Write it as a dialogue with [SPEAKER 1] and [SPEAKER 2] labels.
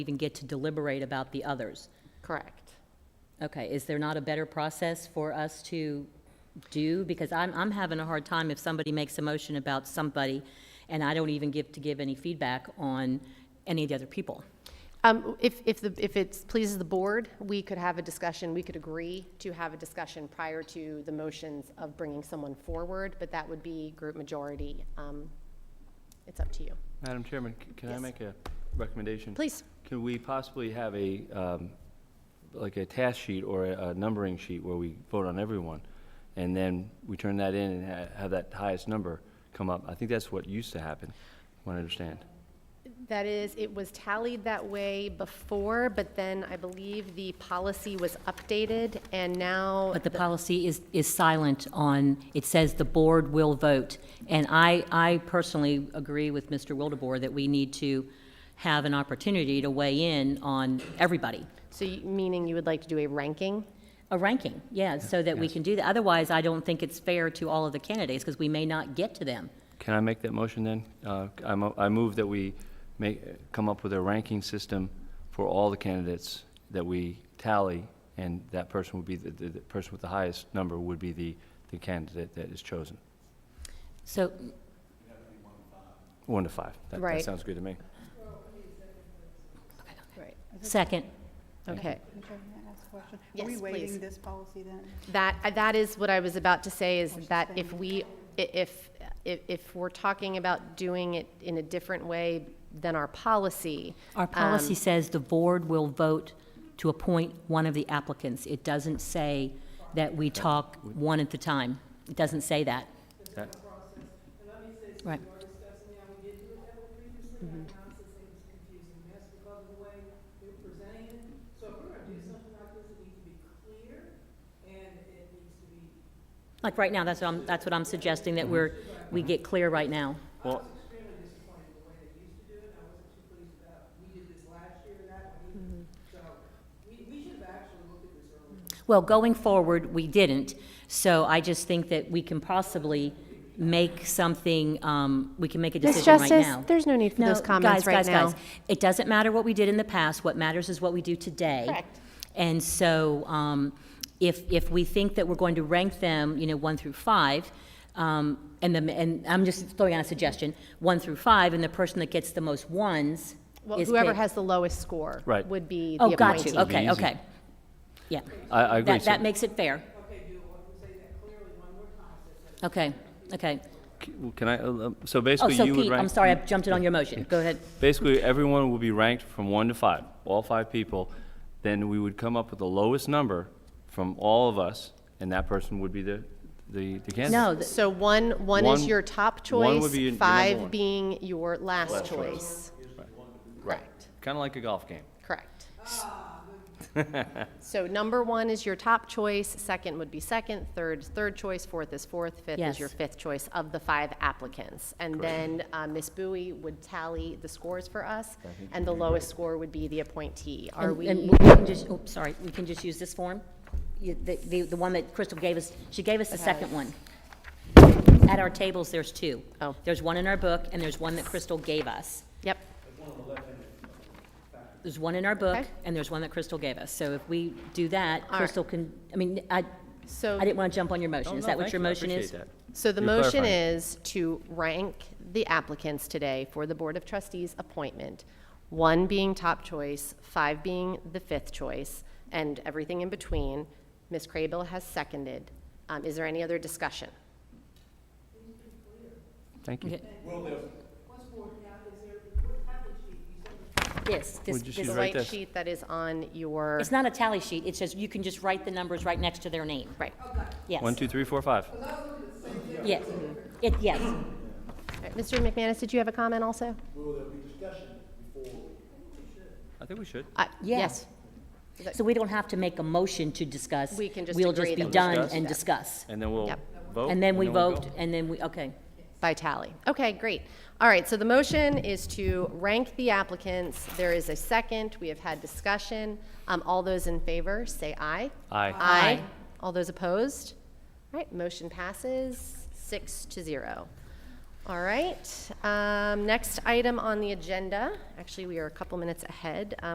[SPEAKER 1] even get to deliberate about the others.
[SPEAKER 2] Correct.
[SPEAKER 1] Okay, is there not a better process for us to do? Because I'm, I'm having a hard time if somebody makes a motion about somebody, and I don't even give, to give any feedback on any of the other people.
[SPEAKER 2] Um, If, if, the- if it pleases the board, we could have a discussion, we could agree to have a discussion prior to the motions of bringing someone forward, but that would be group majority. Um, It's up to you.
[SPEAKER 3] Madam Chairman, c- can I
[SPEAKER 2] Yes.
[SPEAKER 3] make a recommendation?
[SPEAKER 2] Please.
[SPEAKER 3] Can we possibly have a, um, like a task sheet or a a numbering sheet where we vote on everyone? And then we turn that in and ha- have that highest number come up? I think that's what used to happen, from what I understand.
[SPEAKER 2] That is, it was tallied that way before, but then I believe the policy was updated, and now,
[SPEAKER 1] But the policy is, is silent on, it says the board will vote. And I, I personally agree with Mr. Wildebohr that we need to have an opportunity to weigh in on everybody.
[SPEAKER 2] so you- meaning you would like to do a ranking?
[SPEAKER 1] A ranking, yeah, so that we
[SPEAKER 3] Yes.
[SPEAKER 1] can do that. Otherwise, I don't think it's fair to all of the candidates, because we may not get to them.
[SPEAKER 3] Can I make that motion then? Uh, I mo- I move that we make, come up with a ranking system for all the candidates that we tally, and that person would be, the- the the person with the highest number would be the the candidate that is chosen.
[SPEAKER 1] So,
[SPEAKER 3] One to five. That-
[SPEAKER 2] Right.
[SPEAKER 3] That sounds good to me.
[SPEAKER 2] Right.
[SPEAKER 1] second,
[SPEAKER 2] Okay.
[SPEAKER 4] Madam Chairman, may I ask a question?
[SPEAKER 2] Yes,
[SPEAKER 4] Are we
[SPEAKER 2] please.
[SPEAKER 4] waiving this policy then?
[SPEAKER 2] That, uh, that is what I was about to say, is that if we, i- if, if, if we're talking about doing it in a different way than our policy. uh,
[SPEAKER 1] our policy says the board will vote to appoint one of the applicants. It doesn't say that we talk one at a time. It doesn't say that.
[SPEAKER 3] That-
[SPEAKER 1] Right.
[SPEAKER 5] discussing how we did do it that way previously, I honestly think it's confusing, and that's because of the way we're presenting it. So if we're gonna do something like this, it needs to be clear, and it needs to be
[SPEAKER 1] Like, right now, that's what I'm, that's what I'm suggesting, that we're, we get clear right now.
[SPEAKER 3] Well,
[SPEAKER 1] Well, going forward, we didn't, so I just think that we can possibly make something, um, we can make a
[SPEAKER 2] Ms.
[SPEAKER 1] decision right
[SPEAKER 2] Justice,
[SPEAKER 1] now.
[SPEAKER 2] there's no need for those
[SPEAKER 1] No, guys,
[SPEAKER 2] comments right
[SPEAKER 1] guys,
[SPEAKER 2] now.
[SPEAKER 1] guys. It doesn't matter what we did in the past, what matters is what we do today.
[SPEAKER 2] Correct.
[SPEAKER 1] And so, um, if, if we think that we're going to rank them, you know, one through five, um, and the, and I'm just throwing out a suggestion, one through five, and the person that gets the most ones
[SPEAKER 2] Well,
[SPEAKER 1] is
[SPEAKER 2] Whoever
[SPEAKER 1] picked.
[SPEAKER 2] has the lowest score.
[SPEAKER 3] Right.
[SPEAKER 2] Would be the
[SPEAKER 1] Oh, got
[SPEAKER 2] appointee.
[SPEAKER 1] you, okay,
[SPEAKER 3] It'd be easy.
[SPEAKER 1] okay. Yeah.
[SPEAKER 3] I, I agree.
[SPEAKER 1] That,
[SPEAKER 3] So
[SPEAKER 1] that makes it fair. Okay, okay.
[SPEAKER 3] c- well, Can I, uh, uh, so
[SPEAKER 1] Oh,
[SPEAKER 3] basically
[SPEAKER 1] so
[SPEAKER 3] you would
[SPEAKER 1] Pete,
[SPEAKER 3] rank.
[SPEAKER 1] I'm sorry, I jumped it on your motion. Go ahead.
[SPEAKER 3] Basically, everyone will be ranked from one to five, all five people. Then we would come up with the lowest number from all of us, and that person would be the, the the candidate.
[SPEAKER 1] No, Oh, th-
[SPEAKER 2] So one, one is
[SPEAKER 3] One-
[SPEAKER 2] your top
[SPEAKER 3] one would
[SPEAKER 2] choice,
[SPEAKER 3] be your number one.
[SPEAKER 2] five being your last
[SPEAKER 3] Last choice.
[SPEAKER 2] choice. Correct,
[SPEAKER 3] Kind of like a golf game.
[SPEAKER 2] correct. So number one is your top choice, second would be second, third is third choice, fourth is fourth, fifth is
[SPEAKER 1] Yes.
[SPEAKER 2] your fifth choice of the five applicants. And then uh, Ms. Bowie would tally the scores for us, and the lowest score would be the appointee. Are
[SPEAKER 1] and
[SPEAKER 2] we?
[SPEAKER 1] and we can just, oh, sorry, we can just use this form? You- The, the, the one that Crystal gave us, she gave us the second one. At our tables, there's two.
[SPEAKER 2] Oh.
[SPEAKER 1] There's one in our book, and there's one that Crystal gave us.
[SPEAKER 2] Yep,
[SPEAKER 1] There's one in our book,
[SPEAKER 2] Okay.
[SPEAKER 1] and there's one that Crystal gave us. So if we do that,
[SPEAKER 2] right.
[SPEAKER 1] Crystal can, I mean, I, I
[SPEAKER 2] so.
[SPEAKER 1] didn't want to jump on your motion.
[SPEAKER 3] Oh,
[SPEAKER 1] Is
[SPEAKER 3] no,
[SPEAKER 1] that what
[SPEAKER 3] thank
[SPEAKER 1] your
[SPEAKER 3] you. I
[SPEAKER 1] motion is?
[SPEAKER 3] appreciate that.
[SPEAKER 2] So the
[SPEAKER 3] You're
[SPEAKER 2] motion
[SPEAKER 3] clarifying.
[SPEAKER 2] is to rank the applicants today for the Board of Trustees appointment, one being top choice, five being the fifth choice, and everything in between. Ms. Crable has seconded. Um, Is there any other discussion?
[SPEAKER 3] Thank you.
[SPEAKER 1] Okay. This, this,
[SPEAKER 3] Would you
[SPEAKER 1] this.
[SPEAKER 3] She's
[SPEAKER 2] The
[SPEAKER 3] right
[SPEAKER 2] white
[SPEAKER 3] there.
[SPEAKER 2] sheet that is on your,
[SPEAKER 1] It's not a tally sheet, it's just, you can just write the numbers right next to their name.
[SPEAKER 2] right.
[SPEAKER 1] Yes.
[SPEAKER 3] One, two, three, four, five.
[SPEAKER 1] Yes, it, yes.
[SPEAKER 2] All right, Mr. uh, McManus, did you have a comment also?
[SPEAKER 3] I think we should.
[SPEAKER 2] Uh,
[SPEAKER 1] Yeah.
[SPEAKER 2] Yes.
[SPEAKER 1] So we don't have to make a motion to discuss.
[SPEAKER 2] We can just
[SPEAKER 1] We'll
[SPEAKER 2] agree
[SPEAKER 1] just be
[SPEAKER 2] that we
[SPEAKER 1] done
[SPEAKER 3] discuss.
[SPEAKER 1] and discuss.
[SPEAKER 3] And then we'll
[SPEAKER 2] Yep.
[SPEAKER 3] vote.
[SPEAKER 1] And then we
[SPEAKER 3] Oh, we'll
[SPEAKER 1] vote,
[SPEAKER 3] go.
[SPEAKER 1] and then we, okay.
[SPEAKER 2] By tally. Okay, great. All right, so the motion is to rank the applicants. There is a second. We have had discussion. Um, all those in favor, say aye.
[SPEAKER 3] Aye.
[SPEAKER 2] Aye. All those opposed? All right, motion passes six to zero. All right, um, next item on the agenda, actually, we are a couple minutes ahead.